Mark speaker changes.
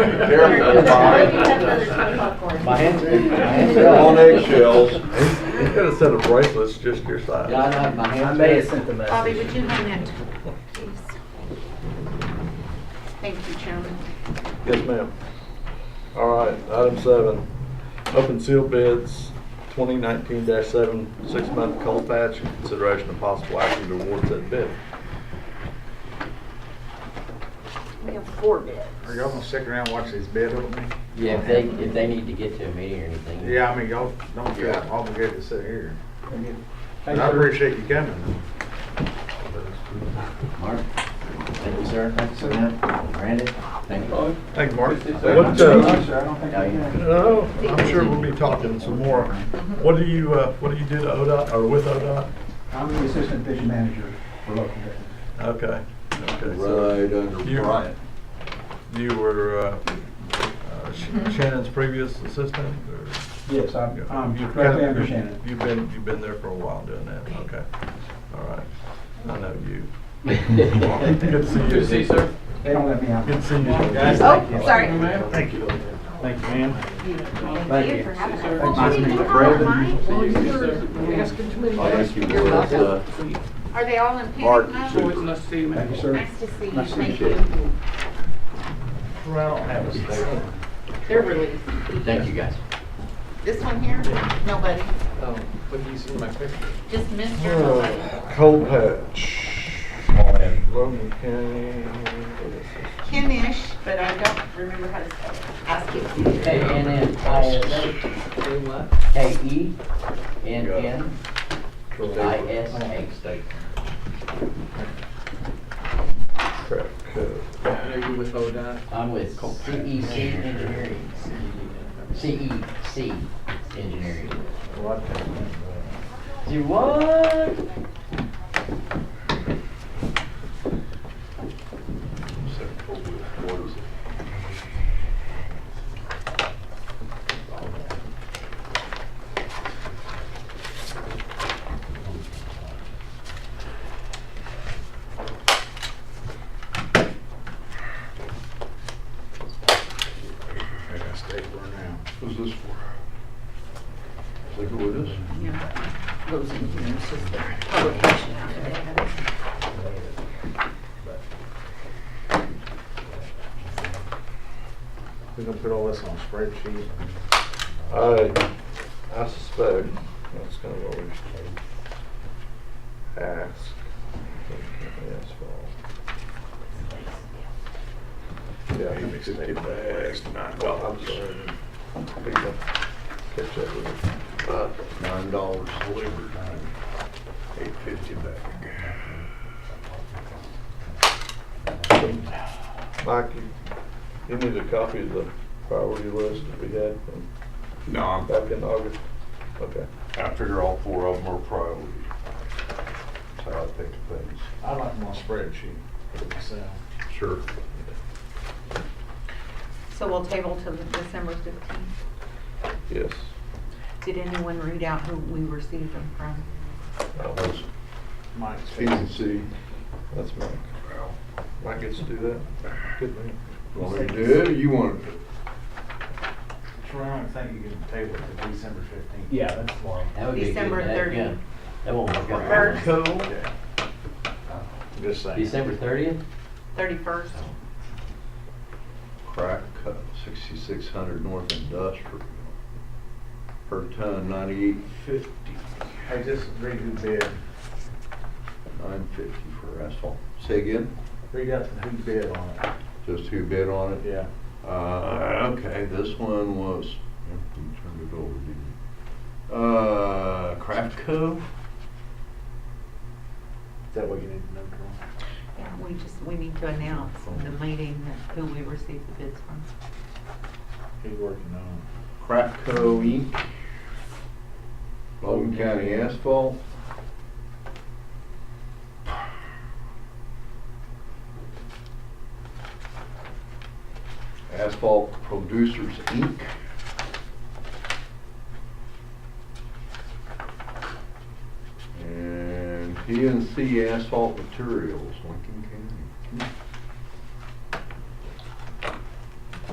Speaker 1: Careful,
Speaker 2: You have
Speaker 1: fine.
Speaker 2: another ton of popcorn.
Speaker 3: My hands, my hands are
Speaker 1: On eggshells.
Speaker 4: He's got a set of bracelets just your size.
Speaker 3: Yeah, I know, my
Speaker 5: I
Speaker 3: hands
Speaker 5: may have
Speaker 3: are
Speaker 5: sent the message.
Speaker 2: Bobby, would you hang that, please? Thank you, Chairman.
Speaker 4: Yes, ma'am. All right, item seven, open seal bids, twenty nineteen seven, six-month coal patch, and consideration of possible action to award said bid.
Speaker 2: We have four bids.
Speaker 6: Are y'all gonna stick around and watch these bid opening?
Speaker 3: Yeah, if they, if they need to get to a meeting or anything.
Speaker 6: Yeah, I mean, y'all don't feel
Speaker 3: Yeah.
Speaker 6: obligated to sit here. And I appreciate you coming.
Speaker 3: Mark, thank you, sir. Thank you, Brandon, thank you.
Speaker 4: Thank you, Mark.
Speaker 6: What,
Speaker 4: uh,
Speaker 3: Now you-
Speaker 4: No, Uh, I'm sure we'll be talking some more. What do you, uh, what do you do to ODOT, or with ODOT?
Speaker 7: I'm the assistant division manager for local government.
Speaker 4: Okay, okay. so
Speaker 1: Right under
Speaker 4: You-
Speaker 1: Bryant.
Speaker 4: You were uh, uh, Sh- Shannon's previous assistant, or?
Speaker 7: Yes, I'm, I'm
Speaker 4: You've
Speaker 7: directly
Speaker 4: kinda-
Speaker 7: under Shannon.
Speaker 4: You've been, you've been there for a while doing that, okay. All right, I know you. Good to see you. Good to see you, sir.
Speaker 7: They don't let me out.
Speaker 4: Good to see you.
Speaker 2: Oh, sorry.
Speaker 4: Thank you.
Speaker 5: Thank you, ma'am.
Speaker 2: Thank you for having us.
Speaker 7: Thank
Speaker 2: Well,
Speaker 7: you.
Speaker 2: we didn't have
Speaker 1: Brandon.
Speaker 2: mine.
Speaker 1: I think you were at uh, the
Speaker 2: Are they all in
Speaker 1: Mark.
Speaker 2: panic mode?
Speaker 7: Thank you, sir.
Speaker 2: Nice to see you,
Speaker 7: Nice to
Speaker 2: thank
Speaker 7: see you.
Speaker 2: you. They're released.
Speaker 3: Thank you, guys.
Speaker 2: This one here, nobody.
Speaker 7: Oh,
Speaker 2: Just Mr. Nobody.
Speaker 4: Cold patch. Logan County.
Speaker 2: Kenish, but I don't remember how to spell it. Ask you.
Speaker 3: K N N I S A. K E N N I S A.
Speaker 4: Crack code.
Speaker 3: I'm with CEC Engineering. CEC Engineering. Do what?
Speaker 6: I got stapler now.
Speaker 1: Who's this for? Is that who it is?
Speaker 2: Yeah. Goes in here, it's just the publication after they have it.
Speaker 6: We're gonna put all this on a spreadsheet.
Speaker 4: I, I suspect that's kind of what we ask. Yeah, he makes it last night. Well, I'm sorry. Catch that with him.
Speaker 1: About nine dollars delivered, eight fifty back.
Speaker 4: Mike, you, you need a copy of the priority list that we had from
Speaker 1: No, I'm
Speaker 4: back in August? Okay.
Speaker 1: I figure all four of them are priority. That's how I think of things.
Speaker 6: I like my spreadsheet. So,
Speaker 1: Sure.
Speaker 2: So we'll table till the December fifteenth.
Speaker 4: Yes.
Speaker 2: Did anyone read out who we received them from?
Speaker 4: Oh,
Speaker 1: That was
Speaker 6: Mike's.
Speaker 1: P Uh, and C.
Speaker 4: That's Mike. Mike gets to do that. Good man.
Speaker 1: Want to do it or you want to?
Speaker 6: Sharon, I think you can table it to December fifteenth.
Speaker 5: Yeah, that's long.
Speaker 3: That would be a good-
Speaker 2: December
Speaker 3: that-
Speaker 2: 30.
Speaker 3: yeah, That won't work out.
Speaker 2: First.
Speaker 6: Yeah. Just saying.
Speaker 3: December thirtieth?
Speaker 2: Thirty-first?
Speaker 1: Crack cut, sixty-six hundred north industrial. Per ton, ninety-eight fifty,
Speaker 6: Hey, just read who bid,
Speaker 1: nine fifty for asphalt. Say again,
Speaker 6: read out who bid on it.
Speaker 1: just who bid on it?
Speaker 6: Yeah.
Speaker 1: Uh, okay, this one was, you turned it over, didn't you? Uh, Craft Cove?
Speaker 6: Is that what you need to know, Sharon?
Speaker 2: Yeah, we just, we need to announce the meeting that who we received the bids from.
Speaker 6: He's working on
Speaker 1: Craftco Inc., Logan County Asphalt. Asphalt Producers Inc. And PNC Asphalt Materials, Lincoln County.